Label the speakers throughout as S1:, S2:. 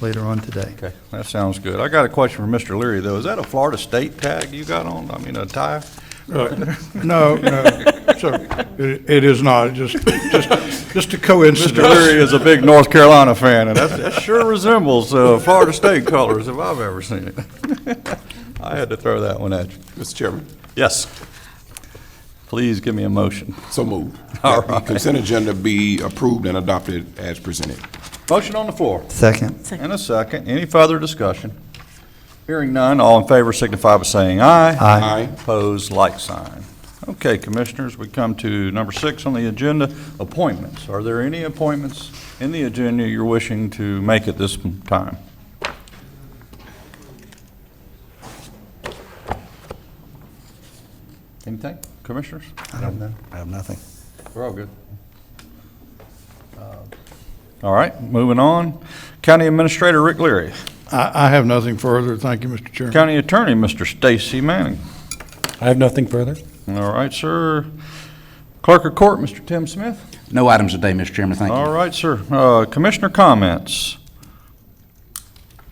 S1: later on today.
S2: Okay, that sounds good. I got a question for Mr. Leary, though. Is that a Florida State tag you got on? I mean, a tie?
S3: Uh, No, no, so, it it is not, just, just, just a
S2: Mr.
S3: coincidence.
S2: Leary is a big North Carolina fan, and that's- that sure resembles uh, Florida State colors if I've ever seen it. I had to throw that one at you.
S4: Mr. Chairman,
S2: Yes. Please give me a motion.
S4: so moved.
S2: All
S4: That the
S2: right.
S4: Consent agenda be approved and adopted as presented.
S2: Motion on the floor.
S1: Second.
S2: And a second. Any further discussion? Hearing none, all in favor signify by saying aye.
S1: Aye.
S4: Aye.
S2: Opposed, like sign. Okay, Commissioners, we come to number six on the agenda, appointments. Are there any appointments in the agenda you're wishing to make at this time? Anything, Commissioners?
S1: I don't know. I have nothing.
S2: We're all good. Uh, All right, moving on. County Administrator Rick Leary.
S3: I, I have nothing further, thank you, Mr. Chairman.
S2: County Attorney, Mr. Stacy Manning.
S5: I have nothing further.
S2: All right, sir. Clerk of Court, Mr. Tim Smith.
S6: No items today, Mr. Chairman, thank you.
S2: All right, sir. Uh, Commissioner comments?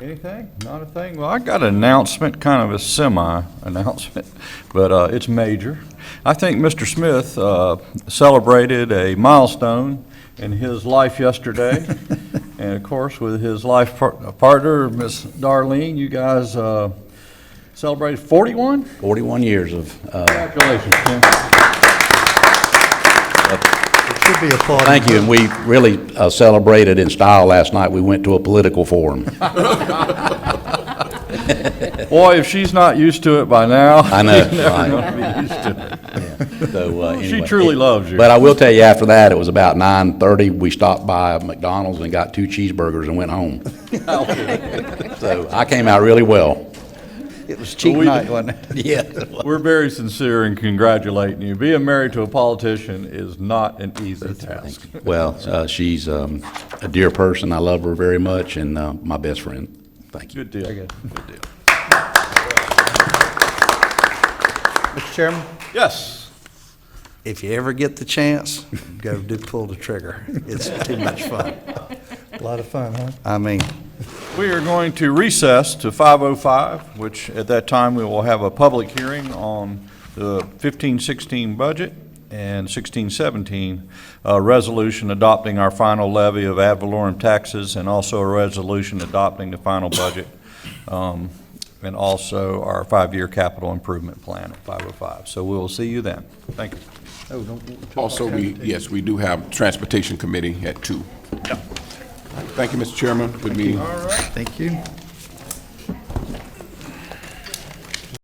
S2: Anything? Not a thing? Well, I got an announcement, kind of a semi-announcement, but uh, it's major. I think Mr. Smith uh, celebrated a milestone in his life yesterday. And of course, with his life par- partner, Miss Darlene, you guys uh, celebrated 41?
S6: 41 years of, uh,
S2: Congratulations, Tim.
S1: It should be applauded.
S6: thank you, and we really uh, celebrated in style last night. We went to a political forum.
S2: Boy, if she's not used to it by now.
S6: I know,
S2: she's never
S6: right.
S2: gonna be used to it.
S6: So, uh,
S2: She
S6: anyway.
S2: truly loves you.
S6: But I will tell you, after that, it was about 9:30, we stopped by McDonald's and got two cheeseburgers and went home. So I came out really well.
S1: It was cheap
S2: We-
S1: night, wasn't it?
S6: Yeah.
S2: We're very sincere in congratulating you. Being married to a politician is not an easy task.
S6: Well, uh, she's um, a dear person. I love her very much and uh, my best friend. Thank you.
S2: Good deal.
S1: Mr. Chairman,
S2: Yes.
S1: if you ever get the chance, go do pull the trigger. It's too much fun. A lot of fun, huh? I mean,
S2: We are going to recess to 5:05, which at that time we will have a public hearing on the 15-16 budget and 16-17 uh, resolution adopting our final levy of ad valorem taxes and also a resolution adopting the final budget um, and also our five-year capital improvement plan at 5:05. So we will see you then. Thank you.
S4: Also, we, yes, we do have Transportation Committee at two. Thank you, Mr. Chairman. Good meeting.
S1: thank you.